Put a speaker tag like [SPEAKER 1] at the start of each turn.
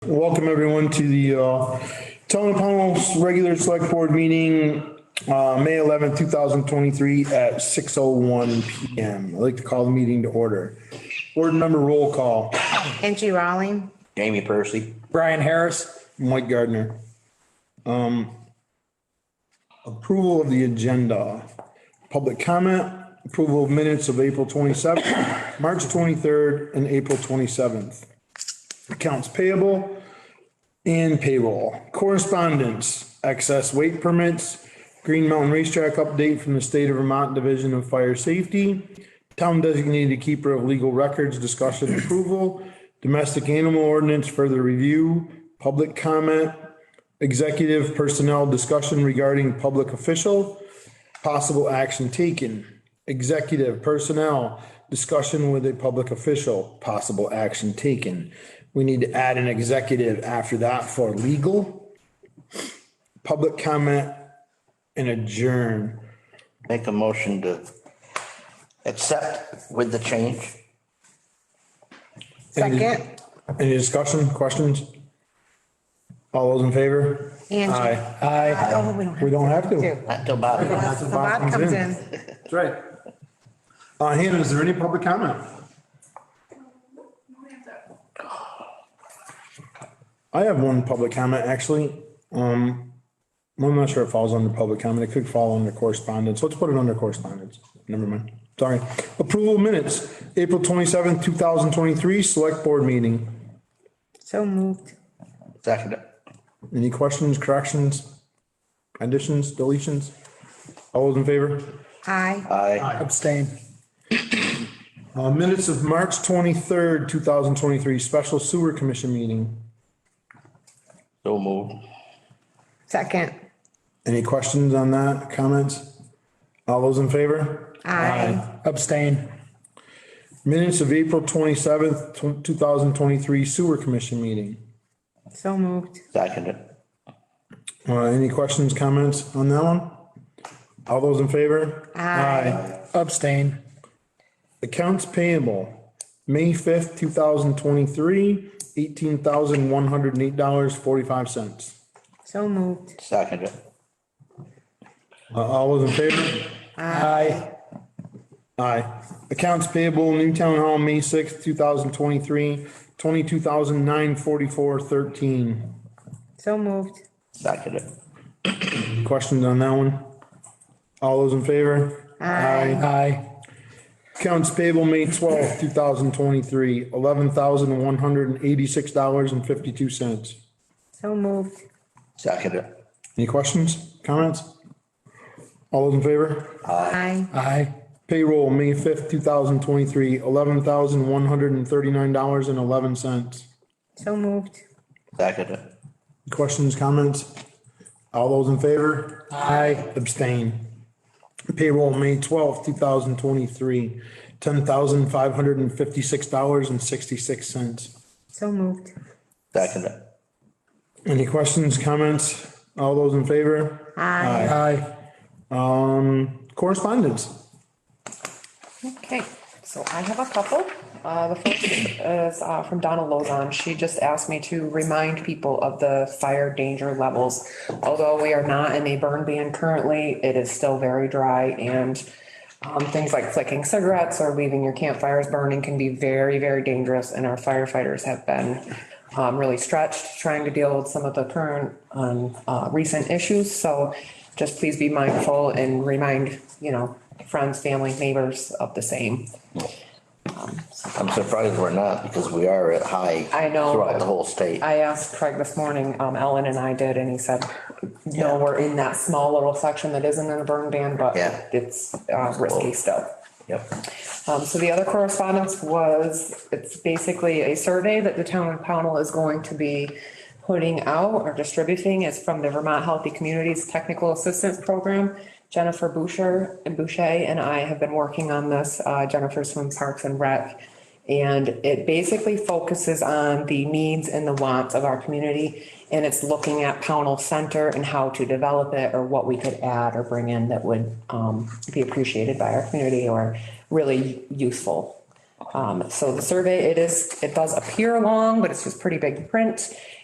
[SPEAKER 1] Welcome everyone to the uh, Town of Pownell's regular select board meeting, uh, May 11th, 2023 at 6:01 PM. I'd like to call the meeting to order. Board member roll call,
[SPEAKER 2] Angie Rawling,
[SPEAKER 3] Jamie Percy.
[SPEAKER 4] Brian Harris,
[SPEAKER 1] Mike Gardner. Um, Approval of the agenda, public comment, approval of minutes of April 27th, March 23rd, and April 27th. accounts payable and payroll. Correspondence, excess weight permits, Green Mountain Racetrack update from the State of Vermont Division of Fire Safety, town designated keeper of legal records, discussion approval, domestic animal ordinance, further review, public comment, executive personnel discussion regarding public official, possible action taken, executive personnel, discussion with a public official, possible action taken. We need to add an executive after that for legal, public comment, and adjourn.
[SPEAKER 3] Make a motion to accept with the change.
[SPEAKER 2] second.
[SPEAKER 1] Any discussion, questions? All those in favor?
[SPEAKER 2] Angie.
[SPEAKER 1] Aye.
[SPEAKER 4] aye.
[SPEAKER 2] Oh, we don't
[SPEAKER 1] We
[SPEAKER 2] have
[SPEAKER 1] don't have to.
[SPEAKER 2] to.
[SPEAKER 3] Not till Bob.
[SPEAKER 2] Unless the Bob comes in.
[SPEAKER 1] That's right. Uh, Hannah, is there any public comment? I have one public comment, actually. Um, I'm not sure it falls under public comment. It could fall under correspondence. Let's put it under correspondence. Never mind. Sorry. Approval of minutes, April twenty-seventh, two thousand twenty-three, select board meeting.
[SPEAKER 2] So moved.
[SPEAKER 3] Second.
[SPEAKER 1] Any questions, corrections, additions, deletions? All those in favor?
[SPEAKER 2] Aye.
[SPEAKER 3] Aye.
[SPEAKER 4] Abstain.
[SPEAKER 1] Uh, minutes of March twenty-third, two thousand twenty-three, special sewer commission meeting.
[SPEAKER 3] So moved.
[SPEAKER 2] Second.
[SPEAKER 1] Any questions on that, comments? All those in favor?
[SPEAKER 2] Aye.
[SPEAKER 4] Abstain.
[SPEAKER 1] Minutes of April twenty-seventh, two thousand twenty-three sewer commission meeting.
[SPEAKER 2] So moved.
[SPEAKER 3] Second.
[SPEAKER 1] Uh, any questions, comments on that one? All those in favor?
[SPEAKER 2] Aye.
[SPEAKER 4] Abstain.
[SPEAKER 1] Accounts payable, May fifth, two thousand twenty-three, eighteen thousand one hundred and eight dollars, forty-five cents.
[SPEAKER 2] So moved.
[SPEAKER 3] Second.
[SPEAKER 1] Uh, all those in favor?
[SPEAKER 4] Aye.
[SPEAKER 1] Aye. Accounts payable, New Town Hall, May sixth, two thousand twenty-three, twenty-two thousand nine forty-four thirteen.
[SPEAKER 2] So moved.
[SPEAKER 3] Second.
[SPEAKER 1] Questions on that one? All those in favor? Aye.
[SPEAKER 4] Aye.
[SPEAKER 1] Accounts payable, May twelfth, two thousand twenty-three, eleven thousand one hundred and eighty-six dollars and fifty-two cents.
[SPEAKER 2] So moved.
[SPEAKER 3] Second.
[SPEAKER 1] Any questions, comments? All those in favor?
[SPEAKER 2] Aye.
[SPEAKER 4] Aye.
[SPEAKER 1] Payroll, May fifth, two thousand twenty-three, eleven thousand one hundred and thirty-nine dollars and eleven cents.
[SPEAKER 2] So moved.
[SPEAKER 3] Second.
[SPEAKER 1] Questions, comments? All those in favor?
[SPEAKER 4] Aye.
[SPEAKER 1] Abstain. Payroll, May twelfth, two thousand twenty-three, ten thousand five hundred and fifty-six dollars and sixty-six cents.
[SPEAKER 2] So moved.
[SPEAKER 3] Second.
[SPEAKER 1] Any questions, comments? All those in favor?
[SPEAKER 2] Aye.
[SPEAKER 4] Aye.
[SPEAKER 1] Um, correspondence.
[SPEAKER 5] Okay, so I have a couple. Uh, the first is uh, from Donna Lozon. She just asked me to remind people of the fire danger levels. Although we are not in a burn ban currently, it is still very dry and um, things like flicking cigarettes or leaving your campfires burning can be very, very dangerous. And our firefighters have been um, really stretched trying to deal with some of the current um, uh, recent issues. So just please be mindful and remind, you know, friends, family, neighbors of the same.
[SPEAKER 3] I'm surprised we're not because we are at high.
[SPEAKER 5] I know.
[SPEAKER 3] Throughout the whole state.
[SPEAKER 5] I asked Craig this morning, um, Ellen and I did, and he said, no, we're in that small little section that isn't in a burn ban, but
[SPEAKER 3] Yeah.
[SPEAKER 5] it's uh, risky still.
[SPEAKER 3] Yep.
[SPEAKER 5] Um, so the other correspondence was, it's basically a survey that the town of Pownell is going to be putting out or distributing. It's from the Vermont Healthy Communities Technical Assistance Program. Jennifer Boucher, Boucher and I have been working on this. Uh, Jennifer's from Parks and Rec. And it basically focuses on the needs and the wants of our community. And it's looking at Pownell Center and how to develop it or what we could add or bring in that would um, be appreciated by our community or really useful. Um, so the survey, it is, it does appear long, but it's just pretty big print.